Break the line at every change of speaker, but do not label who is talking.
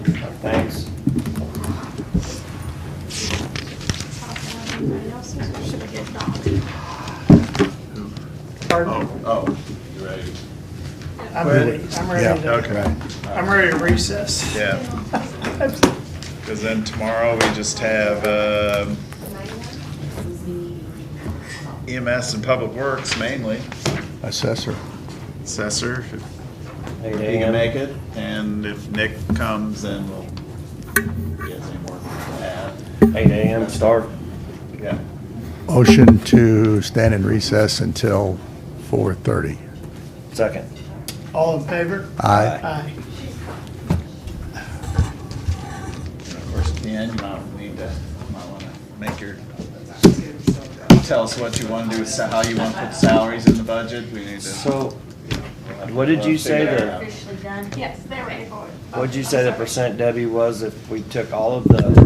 Thanks.
Anybody else's, or should we get Dawn?
Pardon?
Oh, oh, you ready?
I'm ready, I'm ready
Oh. Yeah,
to,
okay.
I'm ready to recess.
Yeah, because then tomorrow we just have um, EMS E and Public Works mainly,
Assessor.
assessor, if
Hey,
he
Dan.
can make it, and if Nick comes, then we'll, he has any more to add.
Eight AM start.
Yeah,
Motion to stand in recess until 4:30.
Second.
All in favor?
Aye.
Aye.
and of course, at the end, you might need to, you might want to make your, tell us what you want to do, with sa- how you want to put salaries in the budget, we need to. uh,
So, what did you say
Figure it
the-
out.
Officially done?
Yes, they're ready for it.
what'd you say the percent Debbie was if we took all of the